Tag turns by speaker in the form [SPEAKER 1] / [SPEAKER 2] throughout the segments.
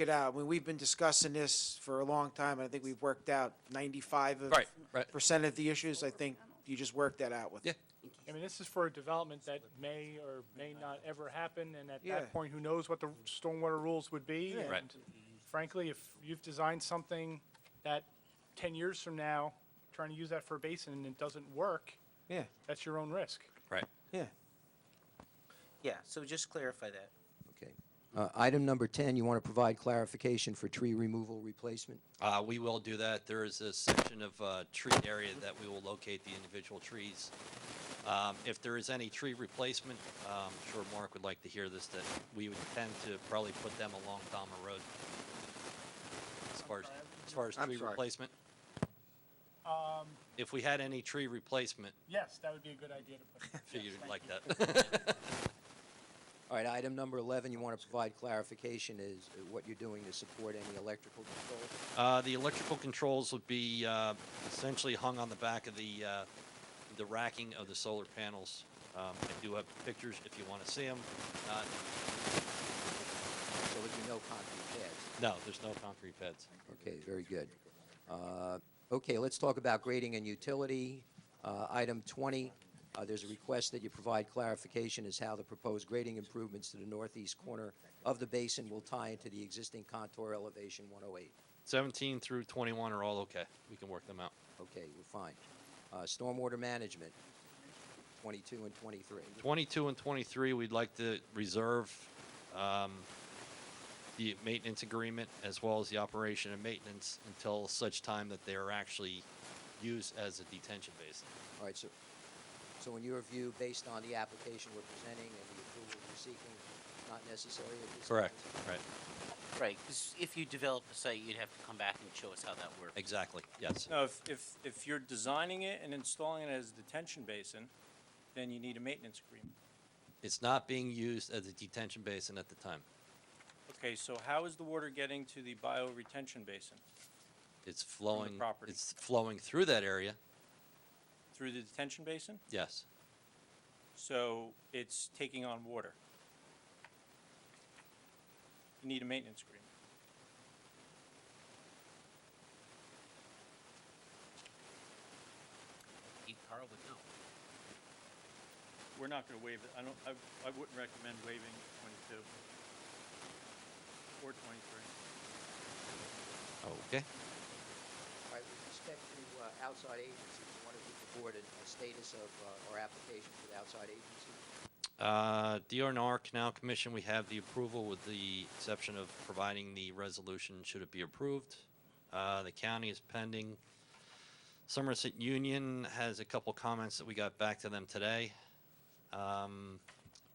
[SPEAKER 1] it out. I mean, we've been discussing this for a long time, and I think we've worked out ninety-five of
[SPEAKER 2] Right, right.
[SPEAKER 1] percent of the issues. I think you just worked that out with.
[SPEAKER 2] Yeah.
[SPEAKER 3] I mean, this is for a development that may or may not ever happen, and at
[SPEAKER 1] Yeah.
[SPEAKER 3] that point, who knows what the stormwater rules would be?
[SPEAKER 1] Yeah.
[SPEAKER 2] Right.
[SPEAKER 3] and Frankly, if you've designed something that 10 years from now, trying to use that for a basin and it doesn't work,
[SPEAKER 1] Yeah,
[SPEAKER 3] that's your own risk.
[SPEAKER 2] Right.
[SPEAKER 1] yeah.
[SPEAKER 4] Yeah, so just clarify that.
[SPEAKER 5] Okay. Uh, Item number 10, you want to provide clarification for tree removal replacement?
[SPEAKER 2] Uh, we will do that. There is a section of, uh, tree area that we will locate the individual trees. Um, if there is any tree replacement, um, I'm sure Mark would like to hear this, that we would tend to probably put them along Dahmer Road. As far as, as far as
[SPEAKER 6] I'm
[SPEAKER 2] tree
[SPEAKER 6] sorry.
[SPEAKER 2] replacement. If we had any tree replacement,
[SPEAKER 3] Um, Yes, that would be a good idea to put. in.
[SPEAKER 2] figured
[SPEAKER 3] Yes, thank
[SPEAKER 2] like
[SPEAKER 3] you.
[SPEAKER 2] that.
[SPEAKER 5] All right, item number 11, you want to provide clarification is uh, what you're doing to support any electrical control?
[SPEAKER 2] Uh, the electrical controls would be, uh, essentially hung on the back of the, uh, the racking of the solar panels. Um, I do have pictures if you want to see them. Uh,
[SPEAKER 5] So that you know concrete pads.
[SPEAKER 2] no, there's no concrete beds.
[SPEAKER 5] Okay, very good. Uh, Okay, let's talk about grading and utility. Uh, Item 20, uh, there's a request that you provide clarification as how the proposed grading improvements to the northeast corner of the basin will tie into the existing contour elevation 108.
[SPEAKER 2] 17 through 21 are all okay. We can work them out.
[SPEAKER 5] Okay, we're fine. Uh, Stormwater management, 22 and 23.
[SPEAKER 2] 22 and 23, we'd like to reserve um, the maintenance agreement as well as the operation and maintenance until such time that they are actually used as a detention basin.
[SPEAKER 5] All right, so, so in your view, based on the application we're presenting and the approval we're seeking, not necessary at this time?
[SPEAKER 2] Right.
[SPEAKER 4] Right, 'cause if you develop a site, you'd have to come back and show us how that works.
[SPEAKER 2] Exactly. Yes.
[SPEAKER 7] No, if, if, if you're designing it and installing it as a detention basin, then you need a maintenance agreement.
[SPEAKER 2] It's not being used as a detention basin at the time.
[SPEAKER 7] Okay, so how is the water getting to the bioretention basin?
[SPEAKER 2] It's flowing.
[SPEAKER 7] property.
[SPEAKER 2] It's flowing through that area.
[SPEAKER 7] Through the detention basin?
[SPEAKER 2] Yes.
[SPEAKER 7] So it's taking on water. You need a maintenance agreement.
[SPEAKER 4] You- Carl would know.
[SPEAKER 7] We're not gonna waive it, I don't, I, I wouldn't recommend waiving twenty-two or twenty-three.
[SPEAKER 2] Okay.
[SPEAKER 5] All right, with respect to uh, outside agencies, you want to give the board a a status of uh, our application for the outside agency?
[SPEAKER 2] Uh, DRNR Canal Commission, we have the approval with the exception of providing the resolution should it be approved. Uh, the county is pending. Somerset Union has a couple comments that we got back to them today. Um,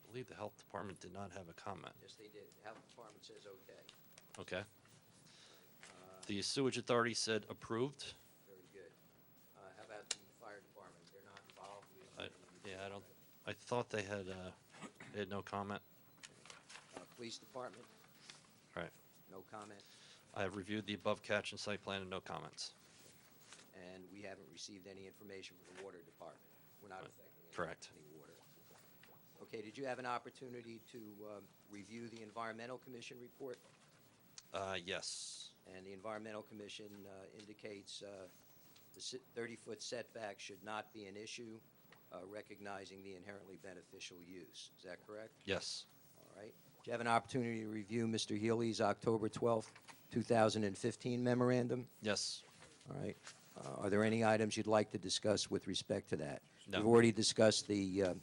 [SPEAKER 2] I believe the health department did not have a comment.
[SPEAKER 5] Yes, they did. Health Department says okay.
[SPEAKER 2] Okay. Uh, The sewage authority said approved.
[SPEAKER 5] Very good. Uh, How about the fire department? They're not involved? We don't
[SPEAKER 2] I-
[SPEAKER 5] have any-
[SPEAKER 2] Yeah, I don't, I thought they had, uh, they had no comment.
[SPEAKER 5] Uh, Police department,
[SPEAKER 2] Right.
[SPEAKER 5] no comment,
[SPEAKER 2] I have reviewed the above catch and site plan and no comments.
[SPEAKER 5] and we haven't received any information from the water department. We're not affecting any-
[SPEAKER 2] Correct.
[SPEAKER 5] any water. Okay, did you have an opportunity to um, review the environmental commission report?
[SPEAKER 2] Uh, yes.
[SPEAKER 5] And the Environmental Commission uh, indicates uh, the si- 30-foot setback should not be an issue, uh, recognizing the inherently beneficial use. Is that correct?
[SPEAKER 2] Yes.
[SPEAKER 5] All right. Do you have an opportunity to review Mr. Healy's October 12, 2015 memorandum?
[SPEAKER 2] Yes.
[SPEAKER 5] All right. Uh, Are there any items you'd like to discuss with respect to that?
[SPEAKER 2] No.
[SPEAKER 5] We've already discussed the, uh,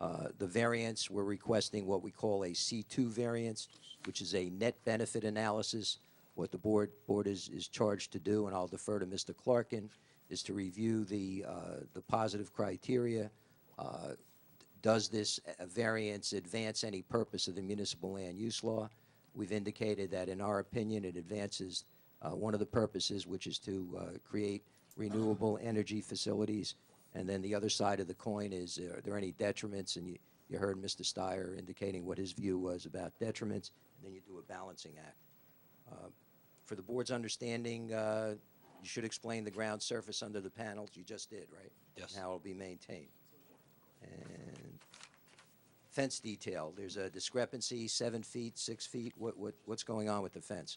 [SPEAKER 5] uh, the variance. We're requesting what we call a C2 variance, which is a net benefit analysis. What the board, board is, is charged to do, and I'll defer to Mr. Clarkin, is to review the, uh, the positive criteria. Uh, Does this uh, variance advance any purpose of the municipal land use law? We've indicated that, in our opinion, it advances uh, one of the purposes, which is to uh, create renewable energy facilities. And then the other side of the coin is, uh, are there any detriments? And you, you heard Mr. Steyer indicating what his view was about detriments, and then you do a balancing act. Uh, For the board's understanding, uh, you should explain the ground surface under the panels, you just did, right?
[SPEAKER 2] Yes.
[SPEAKER 5] And how it'll be maintained. And fence detail, there's a discrepancy, seven feet, six feet, what, what, what's going on with the fence?